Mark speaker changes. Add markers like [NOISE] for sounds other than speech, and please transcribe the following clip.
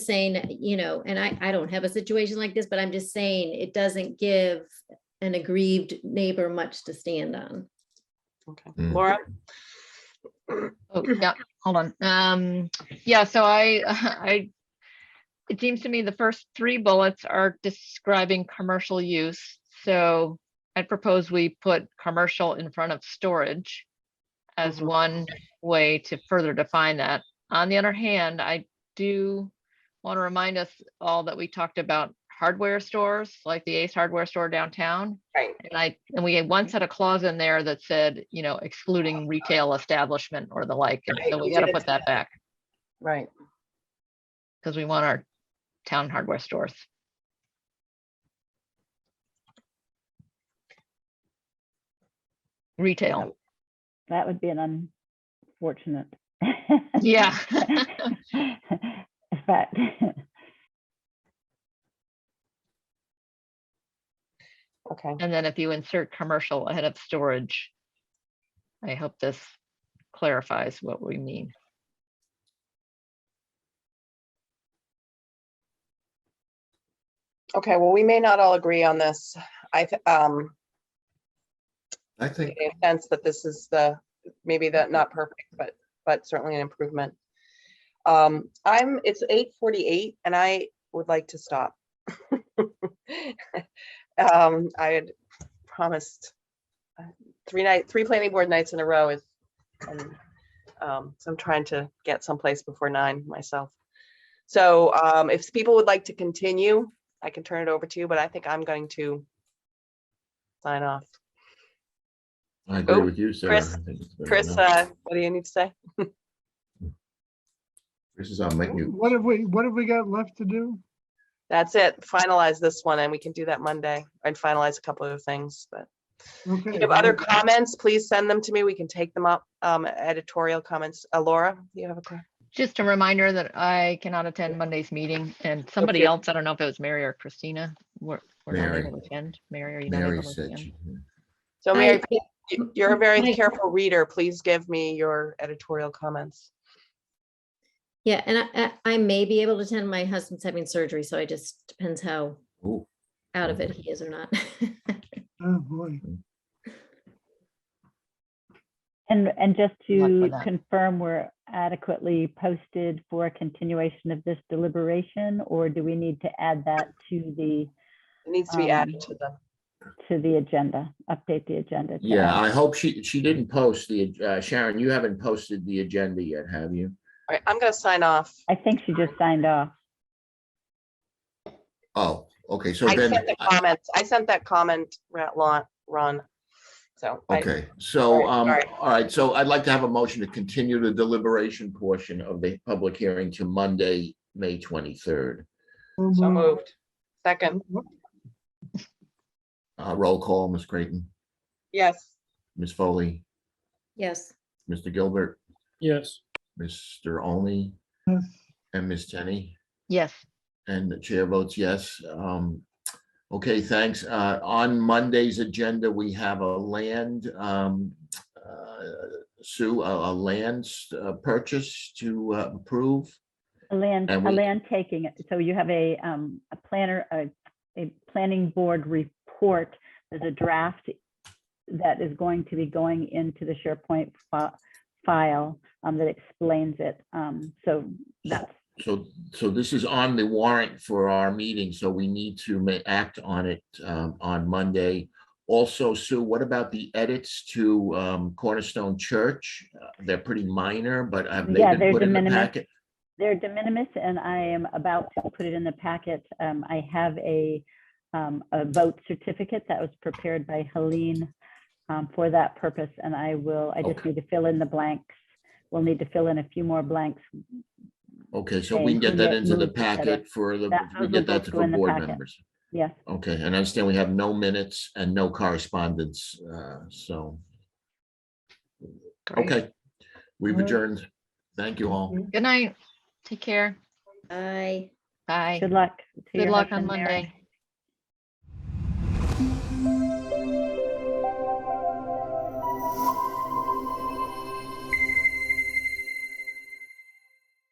Speaker 1: saying, you know, and I, I don't have a situation like this, but I'm just saying it doesn't give an aggrieved neighbor much to stand on.
Speaker 2: Okay,
Speaker 3: Mm.
Speaker 2: Laura,
Speaker 4: Oh, yeah, hold on. Um, yeah, so I, [LAUGHS] I, it seems to me the first three bullets are describing commercial use. So I propose we put commercial in front of storage as
Speaker 2: Mhm.
Speaker 4: one way to further define that. On the other hand, I do want to remind us all that we talked about hardware stores, like the Ace Hardware Store downtown.
Speaker 2: Right.
Speaker 4: And I, and we had once had a clause in there that said, you know, excluding retail establishment or the like. and
Speaker 2: Right,
Speaker 4: So we
Speaker 2: we
Speaker 4: gotta
Speaker 2: did
Speaker 4: put that back
Speaker 2: right,
Speaker 4: because we want our town hardware stores. Retail,
Speaker 5: That would be an unfortunate. [LAUGHS]
Speaker 4: yeah.
Speaker 5: But,
Speaker 2: okay,
Speaker 4: And then if you insert commercial ahead of storage, I hope this clarifies what we mean.
Speaker 2: okay, well, we may not all agree on this. I, th- um,
Speaker 3: I think,
Speaker 2: in a sense that this is the, maybe that not perfect, but, but certainly an improvement. Um, I'm, it's eight forty-eight and I would like to stop. [LAUGHS] Um, I had promised uh, three night, three planning board nights in a row is, and, um, so I'm trying to get someplace before nine myself. So, um, if people would like to continue, I can turn it over to you, but I think I'm going to sign off.
Speaker 3: I agree
Speaker 2: Oh,
Speaker 3: with you, Sarah.
Speaker 2: Chris-
Speaker 3: I think it's better
Speaker 2: Chris,
Speaker 3: now.
Speaker 2: uh, what do you need to say?
Speaker 3: Chris is on mic mute.
Speaker 6: What have we, what have we got left to do?
Speaker 2: That's it. Finalize this one and we can do that Monday and finalize a couple of things, but if
Speaker 6: Okay.
Speaker 2: you have other comments, please send them to me. We can take them up. Um, editorial comments. Uh, Laura, you have a question?
Speaker 4: Just a reminder that I cannot attend Monday's meeting and somebody
Speaker 2: Okay.
Speaker 4: else, I don't know if it was Mary or Christina, were, were not
Speaker 3: Mary.
Speaker 4: able to attend. Mary, are you not
Speaker 3: Mary
Speaker 4: able to
Speaker 3: said,
Speaker 4: attend?
Speaker 3: she-
Speaker 2: So
Speaker 1: I-
Speaker 2: Mary, please, you- you're a very
Speaker 1: I-
Speaker 2: careful reader. Please give me your editorial comments.
Speaker 1: Yeah, and I, I I may be able to attend. My husband's having surgery, so it just depends how
Speaker 3: oh,
Speaker 1: out of it he is or not. [LAUGHS]
Speaker 6: Oh, boy.
Speaker 5: and, and just
Speaker 4: luck with
Speaker 5: to
Speaker 4: that.
Speaker 5: confirm, we're adequately posted for a continuation of this deliberation? Or do we need to add that to the,
Speaker 2: It needs to be
Speaker 5: Um,
Speaker 2: added to the,
Speaker 5: to the agenda, update the agenda? to
Speaker 3: Yeah,
Speaker 5: add-
Speaker 3: I hope she, she didn't post the, uh, Sharon, you haven't posted the agenda yet, have you?
Speaker 2: all right, I'm gonna sign off.
Speaker 5: I think she just signed off.
Speaker 3: Oh, okay, so
Speaker 2: I
Speaker 3: then,
Speaker 2: sent the
Speaker 3: I-
Speaker 2: comments. I sent that comment, Ra- Lon- Ron. So. I-
Speaker 3: okay, so,
Speaker 2: All
Speaker 3: um,
Speaker 2: right,
Speaker 3: all right, so I'd like to have a motion to continue the deliberation portion of the public hearing to Monday, May twenty-third.
Speaker 6: Oh,
Speaker 2: So
Speaker 6: boy.
Speaker 2: moved. Second,
Speaker 3: Uh, roll call, Ms. Creighton,
Speaker 2: yes.
Speaker 3: Ms. Foley,
Speaker 1: Yes,
Speaker 3: Mr. Gilbert,
Speaker 7: Yes.
Speaker 3: Mr. Only,
Speaker 6: Yes.
Speaker 3: and Ms. Tenney.
Speaker 4: Yes.
Speaker 3: And the chair votes yes. Um, Okay, thanks. Uh, On Monday's agenda, we have a land, um, uh, Sue, a a land uh, purchase to uh, approve.
Speaker 5: A land,
Speaker 3: And
Speaker 5: a
Speaker 3: we-
Speaker 5: land taking, so you have a, um, a planner, a, a planning board report. There's a draft that is going to be going into the SharePoint fi- file, um, that explains it. Um, so that's,
Speaker 3: So, so this is on the warrant for our meeting, so we need to ma- act on it um, on Monday. Also, Sue, what about the edits to um, Cornerstone Church? Uh, They're pretty minor, but have they
Speaker 5: Yeah,
Speaker 3: been
Speaker 5: they're
Speaker 3: put
Speaker 5: de
Speaker 3: in the
Speaker 5: minimis.
Speaker 3: packet?
Speaker 5: they're de minimis and I am about to put it in the packet. Um, I have a, um, a vote certificate that was prepared by Helene, um, for that purpose. And I will, I just
Speaker 3: Okay.
Speaker 5: need to fill in the blanks. We'll need to fill in a few more blanks
Speaker 3: Okay, so we can
Speaker 5: and
Speaker 3: get that
Speaker 5: commit
Speaker 3: into the
Speaker 5: moves, et cetera.
Speaker 3: packet for the,
Speaker 5: That-
Speaker 3: we
Speaker 5: those
Speaker 3: get
Speaker 5: will
Speaker 3: that
Speaker 5: both
Speaker 3: to
Speaker 5: go
Speaker 3: the
Speaker 5: in the
Speaker 3: board
Speaker 5: packet.
Speaker 3: members.
Speaker 5: Yes,
Speaker 3: Okay, and I understand we have no minutes and no correspondence, uh, so,
Speaker 4: Great.
Speaker 3: okay. We've
Speaker 6: All right.
Speaker 3: adjourned. Thank you all.
Speaker 4: Good night. Take care.
Speaker 1: I.
Speaker 4: Bye.
Speaker 5: good luck. to
Speaker 4: Good
Speaker 5: your
Speaker 4: luck on
Speaker 5: husband, Mary.
Speaker 4: Monday.